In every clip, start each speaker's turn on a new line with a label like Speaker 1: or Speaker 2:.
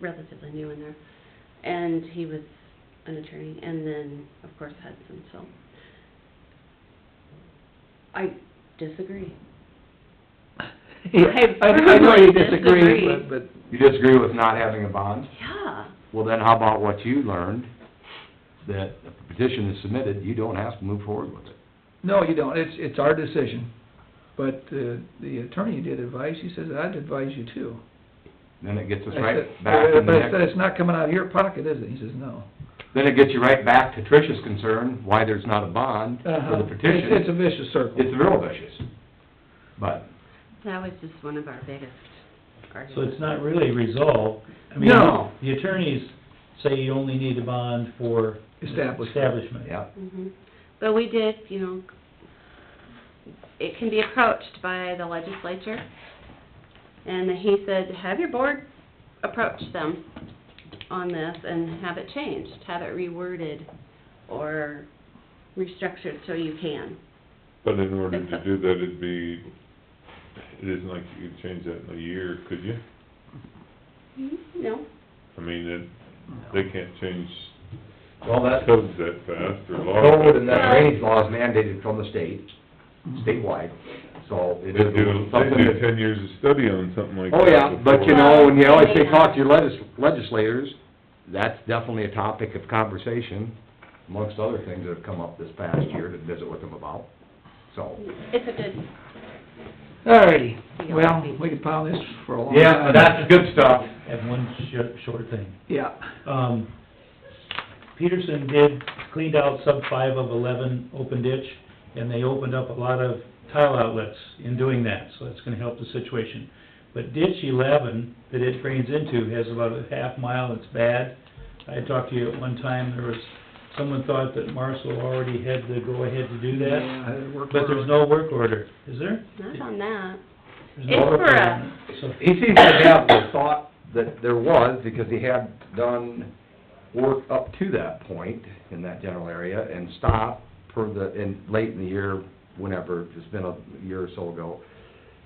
Speaker 1: relatively new in there. And he was an attorney, and then, of course, Hudson, so. I disagree. I
Speaker 2: I know
Speaker 1: firmly
Speaker 2: you disagree,
Speaker 1: disagree.
Speaker 2: but, but
Speaker 3: You disagree with not having a bond?
Speaker 1: Yeah,
Speaker 3: Well, then how about what you learned, that if the petition is submitted, you don't have to move forward with it?
Speaker 2: No, you don't, it's, it's our decision. But uh, the attorney did advise, he says, I'd advise you too.
Speaker 3: Then it gets us
Speaker 2: I
Speaker 3: right
Speaker 2: said,
Speaker 3: back in the
Speaker 2: But I said,
Speaker 3: next,
Speaker 2: it's not coming out of your pocket, is it? He says, no.
Speaker 3: then it gets you right back to Trish's concern, why there's not a bond for
Speaker 2: Uh-huh.
Speaker 3: the
Speaker 2: It's- It's a
Speaker 3: petition.
Speaker 2: vicious circle.
Speaker 3: It's real vicious. But,
Speaker 1: that was just one of our biggest arguments.
Speaker 4: So it's not really resolved. I mean,
Speaker 2: No.
Speaker 4: The attorneys say you only need a bond for
Speaker 2: Establishment.
Speaker 4: establishment.
Speaker 3: yeah,
Speaker 1: Mhm. But we did, you know, it can be approached by the legislature. And he said, have your board approach them on this and have it changed, have it reworded or restructured so you can.
Speaker 5: But in order to do that, it'd be, it isn't like you could change that in a year, could you?
Speaker 1: No?
Speaker 5: I mean, it, they can't change
Speaker 3: well, that
Speaker 5: codes that fast or laws that fast.
Speaker 3: code and that drainage law is mandated from the state, statewide, so
Speaker 5: They
Speaker 3: it
Speaker 5: do,
Speaker 3: is
Speaker 5: they
Speaker 3: something
Speaker 5: do
Speaker 3: that...
Speaker 5: ten years of study on something like that
Speaker 3: Oh, yeah, but you
Speaker 5: before.
Speaker 3: know, when you always say talk to your legis- legislators, that's definitely a topic of conversation amongst other things that have come up this past year to visit with them about, so.
Speaker 1: It's a good,
Speaker 2: Alrighty, well, we could pile this for a long time.
Speaker 3: Yeah, that's good stuff.
Speaker 4: And one sh- short thing.
Speaker 2: Yeah,
Speaker 4: Um, Peterson did, cleaned out sub five of eleven open ditch, and they opened up a lot of tile outlets in doing that, so that's gonna help the situation. But ditch eleven that it drains into has about a half mile, it's bad. I talked to you at one time, there was, someone thought that Marcel already had the go-ahead to do that,
Speaker 2: yeah, it worked.
Speaker 4: but there's no work order, is there?
Speaker 1: not on that.
Speaker 4: There's no
Speaker 1: It's
Speaker 4: work
Speaker 1: for
Speaker 4: order.
Speaker 1: us.
Speaker 4: So,
Speaker 3: He seems to have the thought that there was, because he had done work up to that point in that general area, and stopped per the, in, late in the year, whenever, it's been a year or so ago.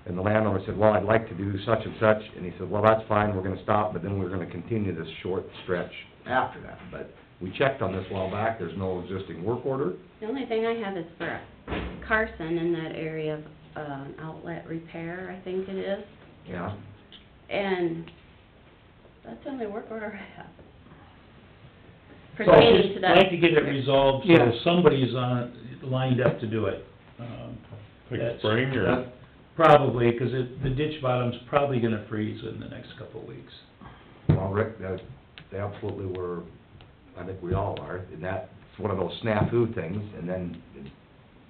Speaker 3: And the landowner said, well, I'd like to do such and such, and he said, well, that's fine, we're gonna stop, but then we're gonna continue this short stretch after that. But we checked on this a while back, there's no existing work order,
Speaker 1: The only thing I have is for Carson in that area of, uh, outlet repair, I think it is.
Speaker 3: yeah.
Speaker 1: And that's the only work order I have.
Speaker 4: So I'd
Speaker 1: Pertaining
Speaker 4: just
Speaker 1: to
Speaker 4: like
Speaker 1: that,
Speaker 4: to get it resolved, so
Speaker 2: Yeah.
Speaker 4: somebody's on, lined up to do it. Um,
Speaker 5: Like
Speaker 4: That's-
Speaker 5: spring
Speaker 3: That's-
Speaker 5: or,
Speaker 4: Probably, 'cause it, the ditch bottom's probably gonna freeze in the next couple of weeks.
Speaker 3: Well, Rick, that, they absolutely were, I think we all are, and that's one of those snafu things, and then it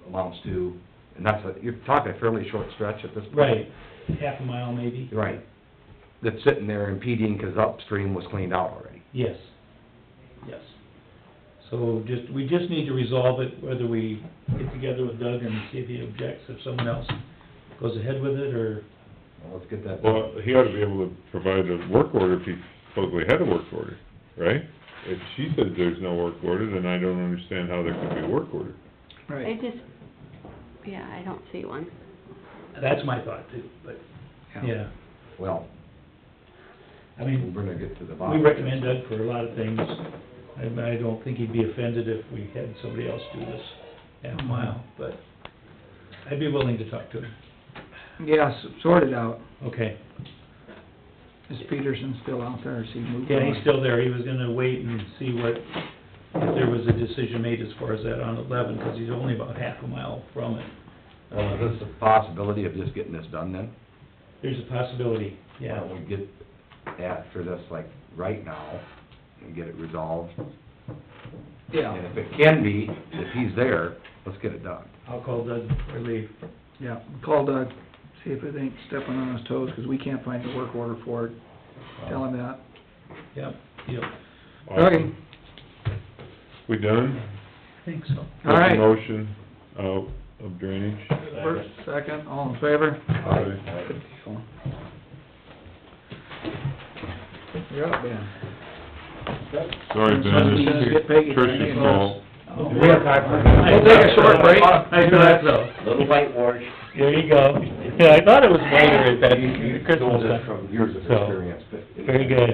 Speaker 3: amounts to, and that's a, you're talking a fairly short stretch at this point.
Speaker 4: Right, half a mile maybe?
Speaker 3: Right. That's sitting there impeding, 'cause upstream was cleaned out already.
Speaker 4: Yes, yes. So just, we just need to resolve it, whether we get together with Doug and see if he objects, if someone else goes ahead with it, or,
Speaker 3: Well, let's get that.
Speaker 5: well, he ought to be able to provide a work order if he supposedly had a work order, right? If she says there's no work order, then I don't understand how there could be a work order.
Speaker 1: I
Speaker 2: Right,
Speaker 1: just, yeah, I don't see one.
Speaker 4: that's my thought too, but, yeah.
Speaker 3: Well,
Speaker 4: I
Speaker 3: we're
Speaker 4: mean,
Speaker 3: gonna get to the
Speaker 4: we
Speaker 3: bottom.
Speaker 4: recommend Doug for a lot of things. I, I don't think he'd be offended if we had somebody else do this half a mile, but I'd be willing to talk to him.
Speaker 2: yes, sort it out.
Speaker 4: Okay.
Speaker 2: Is Peterson still out there, is he moved on?
Speaker 4: Yeah, he's still there, he was gonna wait and see what, if there was a decision made as far as that on eleven, 'cause he's only about half a mile from it.
Speaker 3: Well, Uh, is this a possibility of just getting this done then?
Speaker 4: There's a possibility,
Speaker 3: Why
Speaker 4: yeah.
Speaker 3: don't we get after this, like, right now, and get it resolved? And
Speaker 2: Yeah,
Speaker 3: if it can be, if he's there, let's get it done.
Speaker 4: I'll call Doug or leave.
Speaker 2: yeah, call Doug, see if it ain't stepping on his toes, 'cause we can't find the work order for it. Tell him that.
Speaker 4: Yep, yep,
Speaker 2: Okay,
Speaker 5: Awesome. We done?
Speaker 4: I think so.
Speaker 2: all right.
Speaker 5: Motion out of drainage.
Speaker 2: First, second, all in favor?
Speaker 5: Aye.
Speaker 2: You're up, Ben.
Speaker 5: Sorry,
Speaker 2: Somebody
Speaker 5: Ben,
Speaker 2: just
Speaker 5: it's
Speaker 2: get Peggy.
Speaker 5: Trish's fault.
Speaker 2: We'll take a short break.
Speaker 4: I thought so.
Speaker 6: Little whitewash.
Speaker 4: There you go. Yeah, I thought it was later at that
Speaker 3: You- you
Speaker 4: Christmas
Speaker 3: told us
Speaker 4: time.
Speaker 3: from years of
Speaker 4: So,
Speaker 3: experience, but.
Speaker 4: Very good.